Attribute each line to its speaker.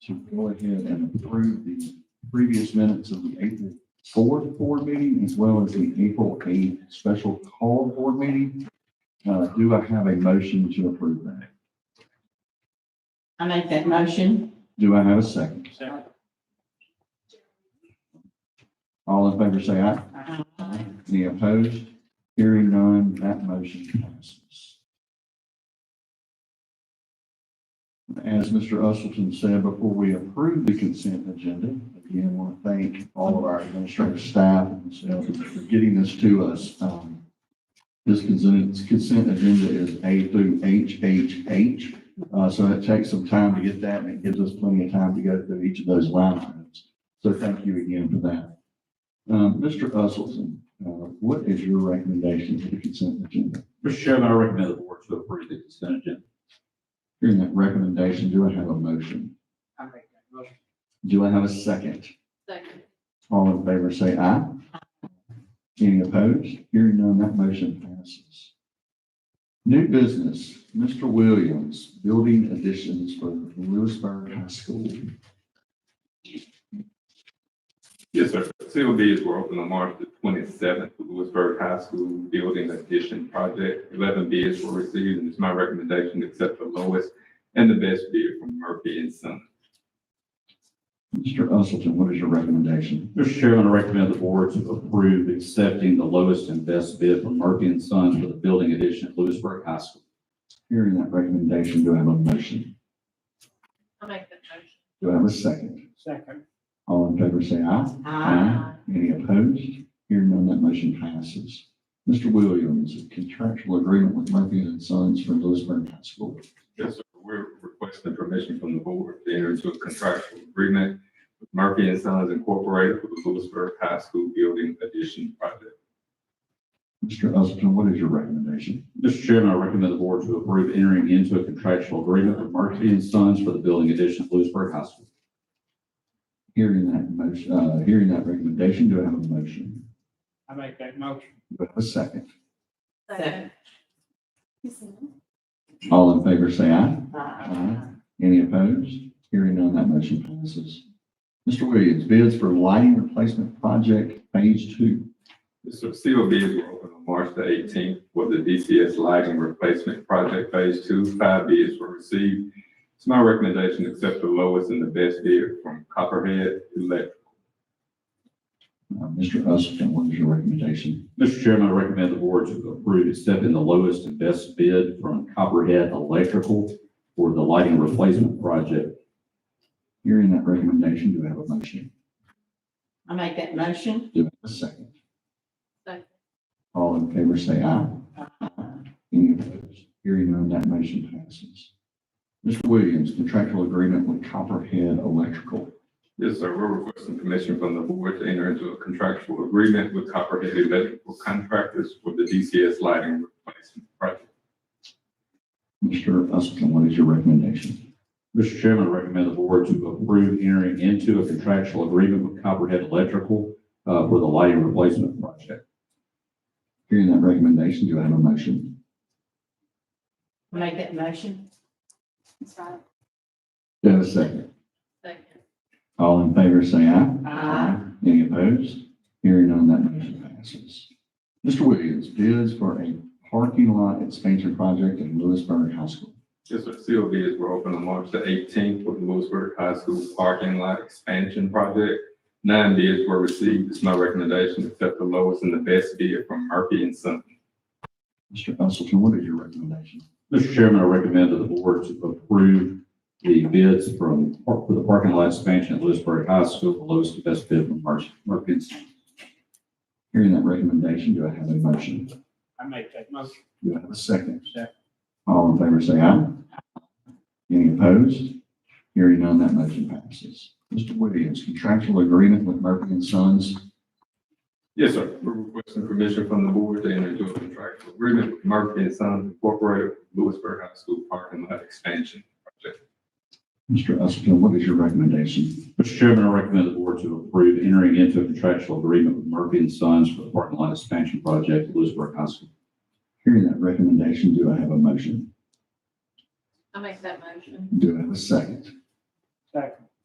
Speaker 1: to go ahead and approve the previous minutes of the April fourth board meeting as well as the April eighth special call board meeting. Uh, do I have a motion to approve that?
Speaker 2: I make that motion.
Speaker 1: Do I have a second?
Speaker 3: Second.
Speaker 1: All in favor, say aye. Any opposed? Hearing none, that motion passes. As Mr. Usleton said, before we approve the consent agenda, again, want to thank all of our administrative staff and sales for getting this to us. Um, This consent, consent agenda is A through H, H, H. Uh, so it takes some time to get that and it gives us plenty of time to go through each of those line items. So thank you again for that. Um, Mr. Usleton, uh, What is your recommendation for the consent agenda?
Speaker 4: Mr. Chairman, I recommend the board to approve the consent agenda.
Speaker 1: Hearing that recommendation, do I have a motion?
Speaker 3: I make that motion.
Speaker 1: Do I have a second?
Speaker 2: Second.
Speaker 1: All in favor, say aye. Any opposed? Hearing none, that motion passes. New business, Mr. Williams, building additions for Lewisburg High School.
Speaker 5: Yes, sir. Sealed bids were open on March the twenty-seventh for Lewisburg High School Building Addition Project. Eleven bids were received, and it's my recommendation to accept the lowest and the best bid from Murphy and Son.
Speaker 1: Mr. Usleton, what is your recommendation?
Speaker 4: Mr. Chairman, I recommend the board to approve accepting the lowest and best bid from Murphy and Sons for the building addition at Lewisburg High School.
Speaker 1: Hearing that recommendation, do I have a motion?
Speaker 2: I make that motion.
Speaker 1: Do I have a second?
Speaker 3: Second.
Speaker 1: All in favor, say aye. Aye. Any opposed? Hearing none, that motion passes. Mr. Williams, a contractual agreement with Murphy and Sons for Lewisburg High School.
Speaker 5: Yes, sir. We're requesting permission from the board to enter into a contractual agreement with Murphy and Sons Incorporated for the Lewisburg High School Building Addition Project.
Speaker 1: Mr. Usleton, what is your recommendation?
Speaker 4: Mr. Chairman, I recommend the board to approve entering into a contractual agreement with Murphy and Sons for the building addition at Lewisburg High School.
Speaker 1: Hearing that motion, uh, hearing that recommendation, do I have a motion?
Speaker 3: I make that motion.
Speaker 1: Do I have a second?
Speaker 2: Second.
Speaker 1: All in favor, say aye.
Speaker 2: Aye.
Speaker 1: Any opposed? Hearing none, that motion passes. Mr. Williams, bids for lighting replacement project phase two.
Speaker 5: Yes, sir. Sealed bids were open on March the eighteenth for the DCS Lighting Replacement Project Phase Two. Five bids were received. It's my recommendation to accept the lowest and the best bid from Copperhead Electric.
Speaker 1: Uh, Mr. Usleton, what is your recommendation?
Speaker 4: Mr. Chairman, I recommend the board to approve accepting the lowest and best bid from Copperhead Electrical for the lighting replacement project.
Speaker 1: Hearing that recommendation, do I have a motion?
Speaker 2: I make that motion.
Speaker 1: Do I have a second?
Speaker 2: Second.
Speaker 1: All in favor, say aye. Any opposed? Hearing none, that motion passes. Mr. Williams, contractual agreement with Copperhead Electrical.
Speaker 5: Yes, sir. We're requesting permission from the board to enter into a contractual agreement with Copperhead Electrical Contractors for the DCS Lighting Replacement Project.
Speaker 1: Mr. Usleton, what is your recommendation?
Speaker 4: Mr. Chairman, I recommend the board to approve entering into a contractual agreement with Copperhead Electrical uh, for the lighting replacement project.
Speaker 1: Hearing that recommendation, do I have a motion?
Speaker 2: I make that motion.
Speaker 1: Do I have a second?
Speaker 2: Second.
Speaker 1: All in favor, say aye.
Speaker 2: Aye.
Speaker 1: Any opposed? Hearing none, that motion passes. Mr. Williams, bids for a parking lot expansion project at Lewisburg High School.
Speaker 5: Yes, sir. Sealed bids were open on March the eighteenth for the Lewisburg High School Parking Lot Expansion Project. Nine bids were received. It's my recommendation to accept the lowest and the best bid from Murphy and Son.
Speaker 1: Mr. Usleton, what is your recommendation?
Speaker 4: Mr. Chairman, I recommend to the board to approve the bids from, for the parking lot expansion at Lewisburg High School, the lowest and best bid from Mark Murphy's.
Speaker 1: Hearing that recommendation, do I have a motion?
Speaker 3: I make that motion.
Speaker 1: Do I have a second?
Speaker 3: Second.
Speaker 1: All in favor, say aye. Any opposed? Hearing none, that motion passes. Mr. Williams, contractual agreement with Murphy and Sons.
Speaker 5: Yes, sir. We're requesting permission from the board to enter into a contractual agreement with Murphy and Sons Incorporated, Lewisburg High School Parking Lot Expansion Project.
Speaker 1: Mr. Usleton, what is your recommendation?
Speaker 4: Mr. Chairman, I recommend the board to approve entering into a contractual agreement with Murphy and Sons for the parking lot expansion project at Lewisburg High School.
Speaker 1: Hearing that recommendation, do I have a motion?
Speaker 2: I make that motion.
Speaker 1: Do I have a second?
Speaker 3: Second.